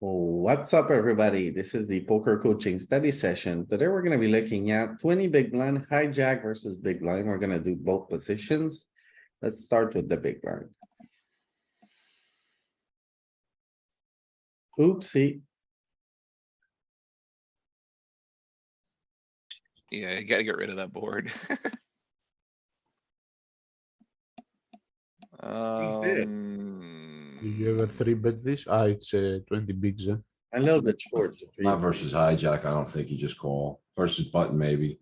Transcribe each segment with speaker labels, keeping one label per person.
Speaker 1: What's up, everybody? This is the poker coaching study session. Today, we're gonna be looking at twenty big blind hijack versus big blind. We're gonna do both positions. Let's start with the big blind. Oopsie,
Speaker 2: Yeah, you gotta get rid of that board.
Speaker 3: Do you have a
Speaker 2: Um,
Speaker 3: three bet this? Ah, it's uh, twenty bigs, eh?
Speaker 1: a little bit short.
Speaker 4: Not versus hijack, I don't think you just call. Versus button, maybe.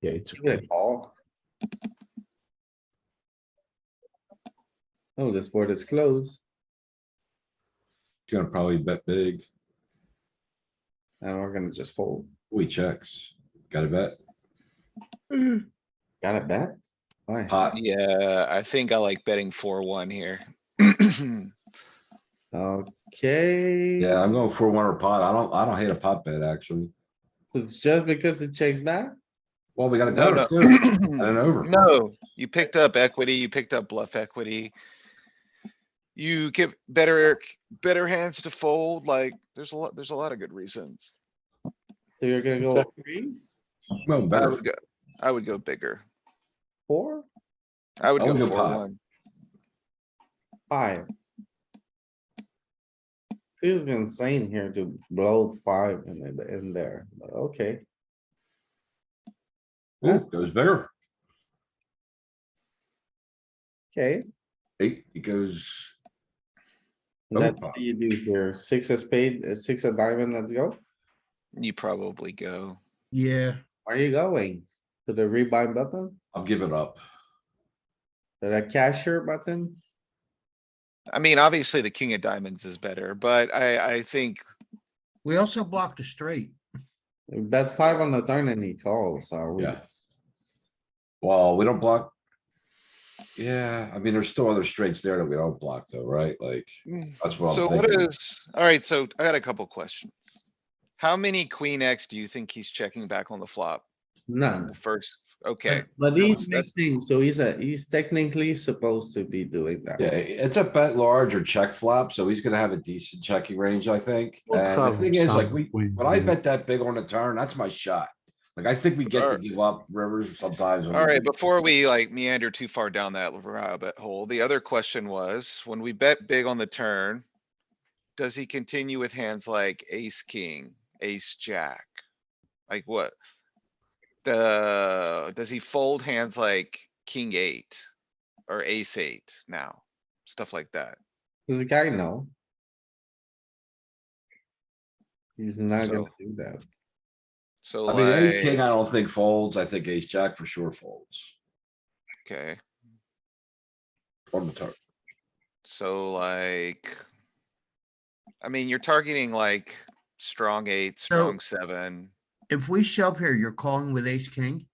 Speaker 3: Yeah, it's.
Speaker 1: Good call. Oh, this board is closed.
Speaker 4: He's gonna probably bet big.
Speaker 1: And we're gonna just fold.
Speaker 4: We checks. Gotta bet.
Speaker 1: Got it back? Why?
Speaker 4: Pot.
Speaker 2: yeah, I think I like betting four, one here.
Speaker 1: Okay.
Speaker 4: Uh, Yeah, I'm going for one or pot. I don't, I don't hate a pot bet, actually.
Speaker 1: It's just because it checks back?
Speaker 4: Well, we got a
Speaker 2: No,
Speaker 4: gutter
Speaker 2: no.
Speaker 4: too. And an over.
Speaker 2: No, you picked up equity, you picked up bluff equity. You give better, better hands to fold, like, there's a lot, there's a lot of good reasons.
Speaker 1: So you're gonna go three,
Speaker 4: No,
Speaker 2: I
Speaker 4: better.
Speaker 2: would go, I would go bigger.
Speaker 1: four,
Speaker 2: I would
Speaker 4: I would
Speaker 2: go
Speaker 4: go
Speaker 2: four,
Speaker 4: pot.
Speaker 2: one.
Speaker 1: five? Feels insane here to blow five in, the- in there, but okay,
Speaker 4: Ooh, goes bigger.
Speaker 1: okay.
Speaker 4: Eight, it goes. Oh,
Speaker 1: That's
Speaker 4: fuck.
Speaker 1: what you do here, six of spade, uh, six of diamond, let's go.
Speaker 2: You probably go.
Speaker 5: Yeah,
Speaker 1: Are you going? To the rebind button,
Speaker 4: I'm giving up.
Speaker 1: to the cashier button?
Speaker 2: I mean, obviously the king of diamonds is better, but I, I think,
Speaker 5: we also blocked a straight.
Speaker 1: Bet five on the turn and he calls, are we?
Speaker 4: Yeah. Well, we don't block. Yeah, I mean, there's still other straights there that we don't block though, right? Like,
Speaker 2: mm,
Speaker 4: that's what
Speaker 2: so
Speaker 4: I'm
Speaker 2: what
Speaker 4: thinking.
Speaker 2: is, alright, so I got a couple questions. How many queen X do you think he's checking back on the flop?
Speaker 1: None,
Speaker 2: First, okay,
Speaker 1: but but he's
Speaker 2: that's-
Speaker 1: mixing, so he's a, he's technically supposed to be doing that.
Speaker 4: Yeah, it's a bet large or check flop, so he's gonna have a decent checking range, I think.
Speaker 3: We'll
Speaker 4: And the
Speaker 3: have
Speaker 4: thing is, like,
Speaker 3: some
Speaker 4: we,
Speaker 3: queen,
Speaker 4: when I
Speaker 3: yeah.
Speaker 4: bet that big on the turn, that's my shot. Like, I think we get to
Speaker 2: Alright.
Speaker 4: give up rivers sometimes. when we
Speaker 2: alright,
Speaker 4: do.
Speaker 2: before we like meander too far down that rabbit hole, the other question was, when we bet big on the turn. Does he continue with hands like ace, king, ace, jack? Like what? The, does he fold hands like king eight? Or ace eight now? Stuff like that.
Speaker 1: Does the guy know? He's not gonna
Speaker 2: So-
Speaker 1: do that.
Speaker 2: So
Speaker 4: I mean, ace king,
Speaker 2: like,
Speaker 4: I don't think folds. I think ace jack for sure folds
Speaker 2: okay,
Speaker 4: on the turn.
Speaker 2: so like. I mean, you're targeting like strong eight, strong seven.
Speaker 5: If we shove here, you're calling with ace king?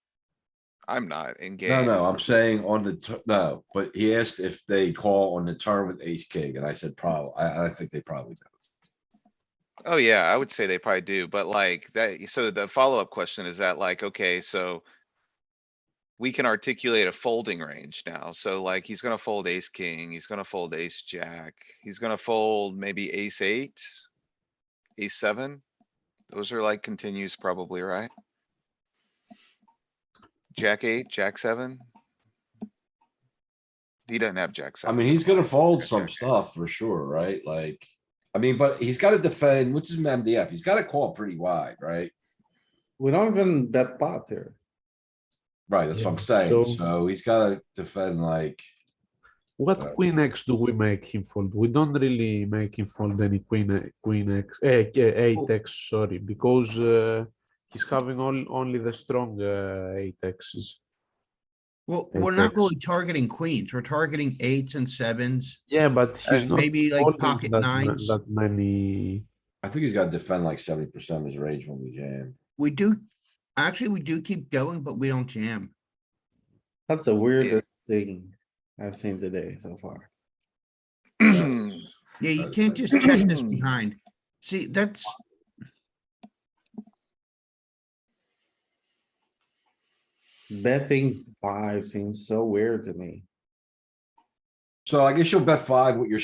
Speaker 2: I'm not in game.
Speaker 4: No, no, I'm saying on the, tu- no, but he asked if they call on the turn with ace king, and I said probably, I, I think they probably do.
Speaker 2: Oh, yeah, I would say they probably do, but like that, so the follow-up question is that like, okay, so. We can articulate a folding range now, so like he's gonna fold ace, king, he's gonna fold ace, jack, he's gonna fold maybe ace eight. Ace seven, those are like continues probably, right? Jack eight, jack seven. He doesn't have jack
Speaker 4: I
Speaker 2: seven.
Speaker 4: mean, he's gonna fold
Speaker 2: Jack,
Speaker 4: some
Speaker 2: jack, jack.
Speaker 4: stuff for sure, right? Like, I mean, but he's gotta defend, which is MDF. He's gotta call pretty wide, right?
Speaker 1: We don't even bet pot here.
Speaker 4: Right, that's what I'm
Speaker 3: Yeah,
Speaker 4: saying.
Speaker 3: so-
Speaker 4: So he's gotta defend like,
Speaker 3: What queen X do we make him fold? We don't really make him fold any queen, eh, queen X, eh, k- eight X, sorry, because uh, he's having all, only the strong uh, eight Xs.
Speaker 5: Well,
Speaker 3: Ace
Speaker 5: we're not
Speaker 3: X.
Speaker 5: really targeting queens, we're targeting eights and sevens.
Speaker 3: Yeah, but he's
Speaker 5: And
Speaker 3: not.
Speaker 5: maybe, like,
Speaker 3: folding
Speaker 5: pocket
Speaker 3: that ma-
Speaker 5: nines.
Speaker 3: That many,
Speaker 4: I think he's gotta defend like seventy percent of his range when we jam.
Speaker 5: We do, actually, we do keep going, but we don't jam.
Speaker 1: That's the weirdest thing I've seen today so far.
Speaker 5: Yeah, you
Speaker 4: Uh,
Speaker 5: can't just check this behind. See, that's,
Speaker 1: Betting five seems so weird to me.
Speaker 4: So I guess you'll bet five with your